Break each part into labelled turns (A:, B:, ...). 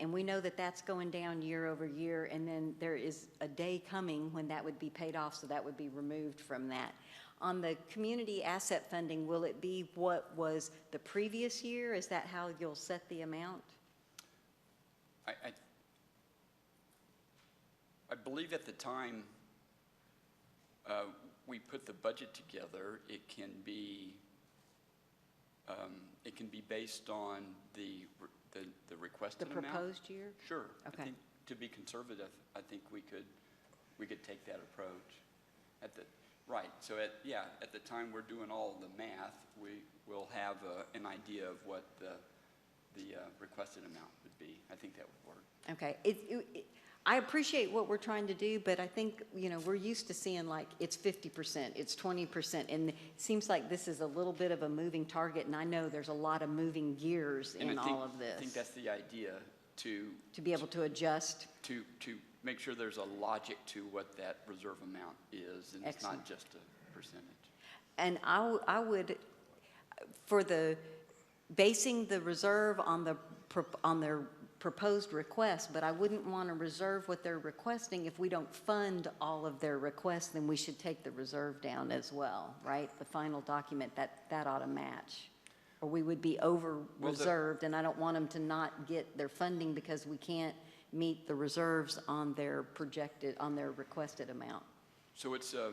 A: And we know that that's going down year over year, and then there is a day coming when that would be paid off, so that would be removed from that. On the community asset funding, will it be what was the previous year? Is that how you'll set the amount?
B: I, I, I believe at the time uh, we put the budget together, it can be, um, it can be based on the, re- the, the
A: The
B: requested amount.
A: proposed year?
B: Sure. I
A: Okay.
B: think To be conservative, I think we could, we could take that approach at the, right. So at, yeah, at the time we're doing all the math, we will have uh, an idea of what the, the uh, requested amount would be. I think that would work.
A: Okay, it, it, I appreciate what we're trying to do, but I think, you know, we're used to seeing like, it's fifty percent, it's twenty percent, and it seems like this is a little bit of a moving target, and I know there's a lot of moving gears
B: And I
A: in
B: think-
A: all of
B: I think
A: this.
B: that's the idea, to,
A: To be able to adjust,
B: to, to make sure there's a logic to what that reserve amount is, and it's
A: Excellent.
B: not just a percentage.
A: and I, w- I would, for the, basing the reserve on the, prop- on their proposed request, but I wouldn't want to reserve what they're requesting. If we don't fund all of their requests, then we should take the reserve down as well, right? The final document, that, that ought to match. Or we would be
B: the-
A: over-reserved, and I don't want them to not get their funding because we can't meet the reserves on their projected, on their requested amount.
B: So it's a,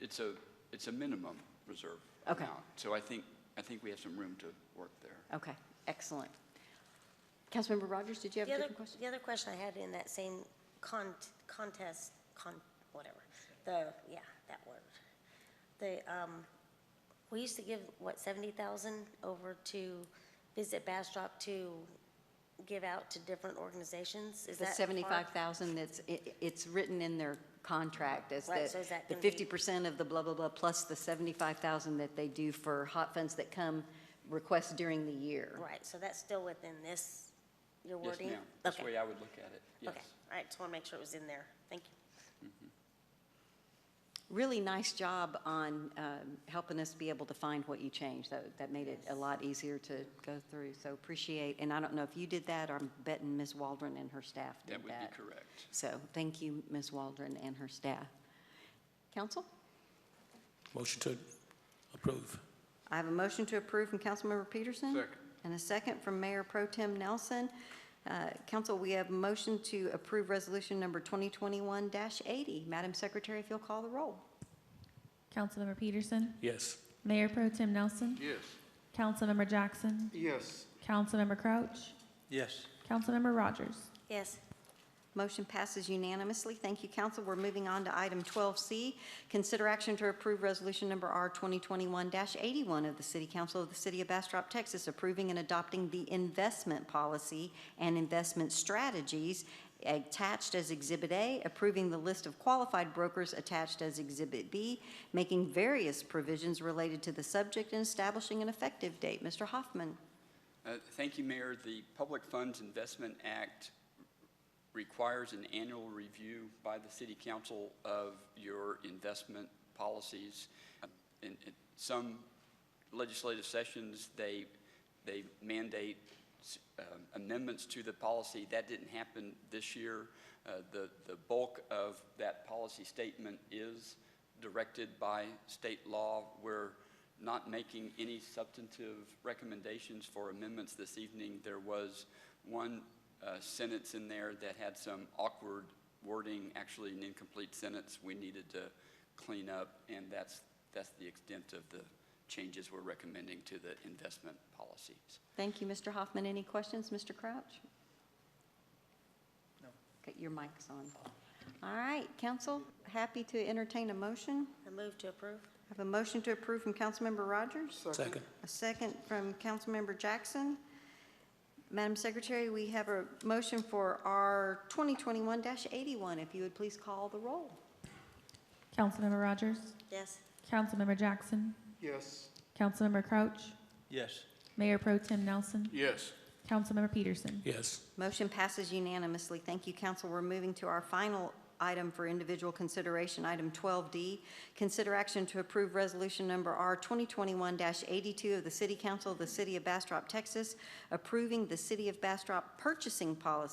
B: it's a, it's a minimum reserve
A: Okay.
B: amount. So I think, I think we have some room to work there.
A: Okay, excellent. Councilmember Rogers, did you have a
C: The other,
A: different question?
C: the other question I had in that same con, contest, con, whatever, the, yeah, that word. The, um, we used to give, what, seventy thousand over to Visit Bastrop to give out to different organizations? Is
A: The
C: that? far-
A: seventy-five thousand, that's, i- i- it's written in their contract as
C: Right, so is
A: that,
C: that
A: the
C: gonna be-
A: fifty percent of the blah, blah, blah, plus the seventy-five thousand that they do for hot funds that come, requests during the year.
C: Right, so that's still within this, your
B: Yes,
C: wording?
B: ma'am. That's the
C: Okay,
B: way I would look at it, yes.
C: Okay, all right, just want to make sure it was in there. Thank you.
A: Really nice job on um, helping us be able to find what you changed. That, that made it a lot easier to go through, so appreciate. And I don't know if you did that, or I'm betting Ms. Waldron and her staff did
B: That
A: that.
B: would be correct.
A: So, thank you, Ms. Waldron and her staff. Council?
D: Motion to approve.
A: I have a motion to approve from Councilmember Peterson.
B: Second.
A: And a second from Mayor Pro Tem Nelson. Uh, Council, we have motion to approve resolution number 2021-80. Madam Secretary, if you'll call the roll.
E: Councilmember Peterson.
D: Yes.
E: Mayor Pro Tim Nelson.
F: Yes.
E: Councilmember Jackson.
F: Yes.
E: Councilmember Crouch.
F: Yes.
E: Councilmember Rogers.
C: Yes,
A: Motion passes unanimously. Thank you, council. We're moving on to item 12C, consider action to approve resolution number R 2021-81 of the City Council of the City of Bastrop, Texas, approving and adopting the investment policy and investment strategies attached as Exhibit A, approving the list of qualified brokers attached as Exhibit B, making various provisions related to the subject and establishing an effective date. Mr. Hoffman?
B: Uh, Thank you, Mayor. The Public Funds Investment Act requires an annual review by the City Council of your investment policies. Uh, In in some legislative sessions, they, they mandate s- um, amendments to the policy. That didn't happen this year. Uh, The, the bulk of that policy statement is directed by state law. We're not making any substantive recommendations for amendments this evening. There was one uh, sentence in there that had some awkward wording, actually an incomplete sentence we needed to clean up, and that's, that's the extent of the changes we're recommending to the investment policies.
A: Thank you, Mr. Hoffman. Any questions, Mr. Crouch? No. Your mic's on. All right, council, happy to entertain a motion.
C: I move to approve.
A: I have a motion to approve from Councilmember Rogers,
D: Second.
A: a second from Councilmember Jackson. Madam Secretary, we have a motion for our 2021-81. If you would please call the roll.
E: Councilmember Rogers.
C: Yes,
E: Councilmember Jackson.
F: Yes.
E: Councilmember Crouch.
F: Yes.
E: Mayor Pro Tim Nelson.
F: Yes.
E: Councilmember Peterson.
D: Yes.
A: Motion passes unanimously. Thank you, council. We're moving to our final item for individual consideration, item 12D. Consider action to approve resolution number R 2021-82 of the City Council of the City of Bastrop, Texas, approving the City of Bastrop purchasing policy